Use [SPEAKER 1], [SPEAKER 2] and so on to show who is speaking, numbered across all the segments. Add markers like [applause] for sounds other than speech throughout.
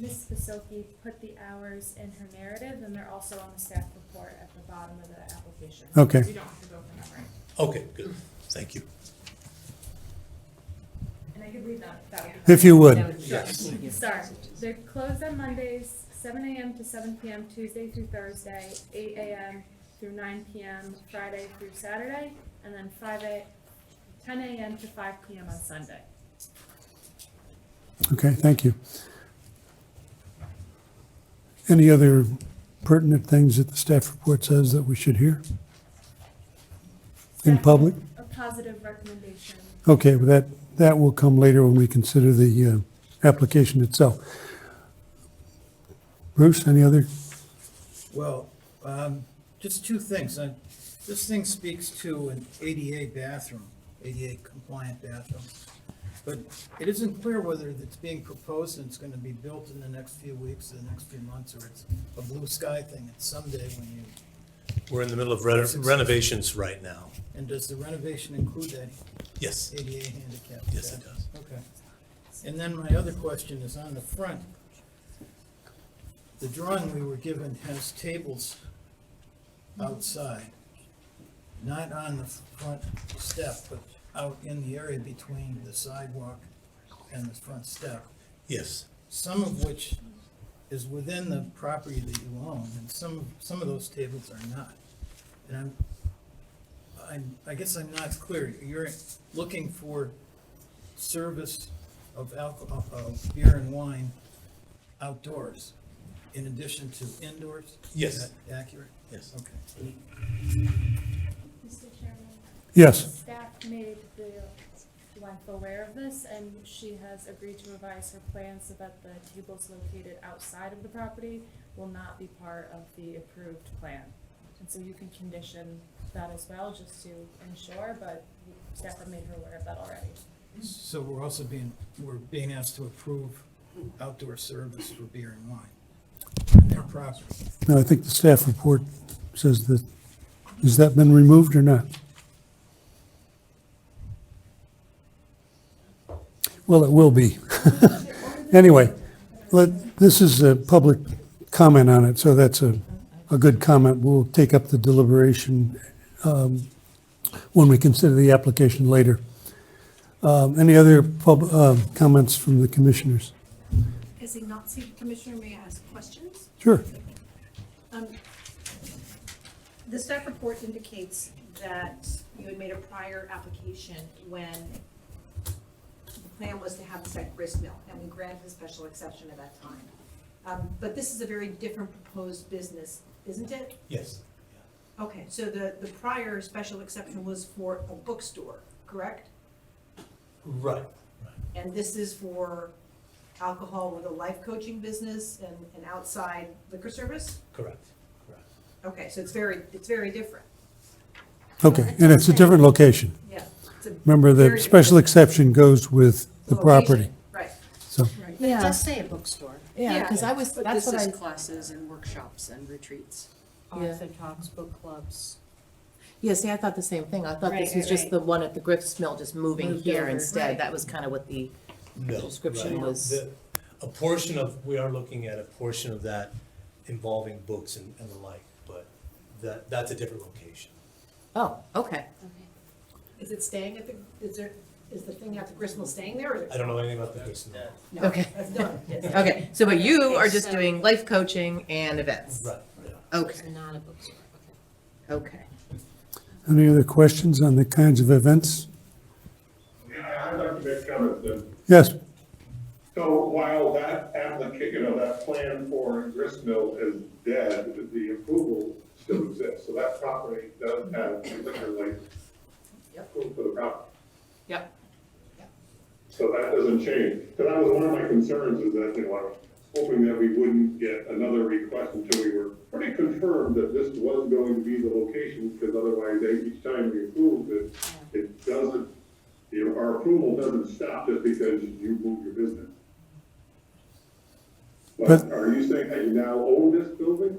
[SPEAKER 1] Ms. Basilke put the hours in her narrative, and they're also on the staff report at the bottom of the application.
[SPEAKER 2] Okay.
[SPEAKER 1] You don't have to go from memory.
[SPEAKER 3] Okay, good, thank you.
[SPEAKER 1] And I could read that, that would be.
[SPEAKER 2] If you would.
[SPEAKER 3] Yes.
[SPEAKER 1] Sorry, they're closed on Mondays, seven AM to seven PM, Tuesday through Thursday, eight AM through nine PM, Friday through Saturday, and then five A, ten AM to five PM on Sunday.
[SPEAKER 2] Okay, thank you. Any other pertinent things that the staff report says that we should hear? In
[SPEAKER 1] Staff-
[SPEAKER 2] public?
[SPEAKER 1] A positive recommendation.
[SPEAKER 2] Okay, well, that, that will come later when we consider the uh, application itself. Bruce, any other?
[SPEAKER 4] Well, um, just two things. Uh, This thing speaks to an ADA bathroom, ADA compliant bathroom. But it isn't clear whether it's being proposed and it's gonna be built in the next few weeks, the next few months, or it's a blue sky thing. It's someday when you,
[SPEAKER 3] We're in the middle of reno- renovations right now.
[SPEAKER 4] and does the renovation include that
[SPEAKER 3] Yes,
[SPEAKER 4] ADA handicap?
[SPEAKER 3] yes, it does.
[SPEAKER 4] Okay. And then my other question is on the front. The drawing we were given has tables outside, not on the front step, but out in the area between the sidewalk and the front step,
[SPEAKER 3] Yes,
[SPEAKER 4] some of which is within the property that you own, and some, some of those tables are not. And I'm, I'm, I guess I'm not clear. You're looking for service of alcohol, of beer and wine outdoors in addition to indoors?
[SPEAKER 3] Yes.
[SPEAKER 4] Is that accurate?
[SPEAKER 3] yes.
[SPEAKER 4] Okay.
[SPEAKER 1] Mr. Chairman?
[SPEAKER 2] Yes,
[SPEAKER 1] Staff made the wife aware of this, and she has agreed to revise her plan so that the tables located outside of the property will not be part of the approved plan. And so you can condition that as well, just to ensure, but staff have made her aware of that already.
[SPEAKER 4] So we're also being, we're being asked to approve outdoor service for beer and wine on their property.
[SPEAKER 2] no, I think the staff report says that, has that been removed or not? Well, it will be. [laughs] Anyway, let, this is a public comment on it, so that's a, a good comment. We'll take up the deliberation um, when we consider the application later. Um, Any other pub, uh, comments from the commissioners?
[SPEAKER 5] As a not seated commissioner, may I ask questions?
[SPEAKER 2] Sure.
[SPEAKER 5] Um, The staff report indicates that you had made a prior application when the plan was to have this at grist mill, and we granted a special exception at that time. Um, But this is a very different proposed business, isn't it?
[SPEAKER 3] Yes.
[SPEAKER 5] Okay, so the, the prior special exception was for a bookstore, correct?
[SPEAKER 3] Right.
[SPEAKER 5] And this is for alcohol with a life coaching business and an outside liquor service?
[SPEAKER 3] Correct, correct.
[SPEAKER 5] Okay, so it's very, it's very different.
[SPEAKER 2] Okay, and it's a different location.
[SPEAKER 5] Yeah. it's a
[SPEAKER 2] Remember,
[SPEAKER 5] very
[SPEAKER 2] the
[SPEAKER 5] different
[SPEAKER 2] special exception goes with the
[SPEAKER 5] location.
[SPEAKER 2] property,
[SPEAKER 5] Right.
[SPEAKER 2] so.
[SPEAKER 6] But it
[SPEAKER 7] Yeah.
[SPEAKER 6] does say a bookstore.
[SPEAKER 7] Yeah, because I was,
[SPEAKER 6] But
[SPEAKER 7] that's
[SPEAKER 6] this
[SPEAKER 7] what
[SPEAKER 6] is
[SPEAKER 7] I, Oh,
[SPEAKER 6] classes and workshops and retreats.
[SPEAKER 7] Arts
[SPEAKER 6] and talks, book clubs.
[SPEAKER 7] yeah, see, I thought the same thing. I thought this
[SPEAKER 6] Right,
[SPEAKER 7] was
[SPEAKER 6] right,
[SPEAKER 7] just
[SPEAKER 6] right.
[SPEAKER 7] the one at the Griff's Mill, just moving
[SPEAKER 6] Moved
[SPEAKER 7] here
[SPEAKER 6] over.
[SPEAKER 7] instead.
[SPEAKER 6] Right.
[SPEAKER 7] That was kind of what the,
[SPEAKER 3] No.
[SPEAKER 7] Description
[SPEAKER 3] right.
[SPEAKER 7] was-
[SPEAKER 3] The- A portion of, we are looking at a portion of that involving books and, and the like, but that, that's a different location.
[SPEAKER 7] oh, okay.
[SPEAKER 5] Is it staying at the, is there, is the thing at the Gristmill staying there or?
[SPEAKER 3] I don't know anything about the person.
[SPEAKER 5] No,
[SPEAKER 7] Okay.
[SPEAKER 5] That's done, yes.
[SPEAKER 7] Okay, so but you are just
[SPEAKER 6] so-
[SPEAKER 7] doing life coaching and events.
[SPEAKER 3] Right, yeah.
[SPEAKER 6] It's
[SPEAKER 7] Okay,
[SPEAKER 6] not a bookstore, okay.
[SPEAKER 7] okay.
[SPEAKER 2] Any other questions on the kinds of events?
[SPEAKER 8] Yeah, I'd like to make comments then.
[SPEAKER 2] Yes,
[SPEAKER 8] So while that application of that plan for Gristmill is dead, the approval still exists. So that property does have a liquor license.
[SPEAKER 6] Yep.
[SPEAKER 8] approved For the property.
[SPEAKER 6] Yep.
[SPEAKER 8] So that doesn't change. Because that was one of my concerns is that, you know, I was hoping that we wouldn't get another request until we were pretty confirmed that this was going to be the location, because otherwise they- each time we approved it, it doesn't, you know, our approval doesn't stop just because you move your business. But
[SPEAKER 2] But-
[SPEAKER 8] are you saying that you now own this building?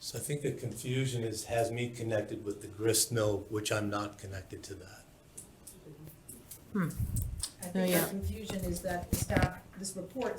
[SPEAKER 3] So I think the confusion is, has me connected with the grist mill, which I'm not connected to that.
[SPEAKER 5] I
[SPEAKER 7] Oh,
[SPEAKER 5] think
[SPEAKER 7] yeah.
[SPEAKER 5] the confusion is that the staff, this report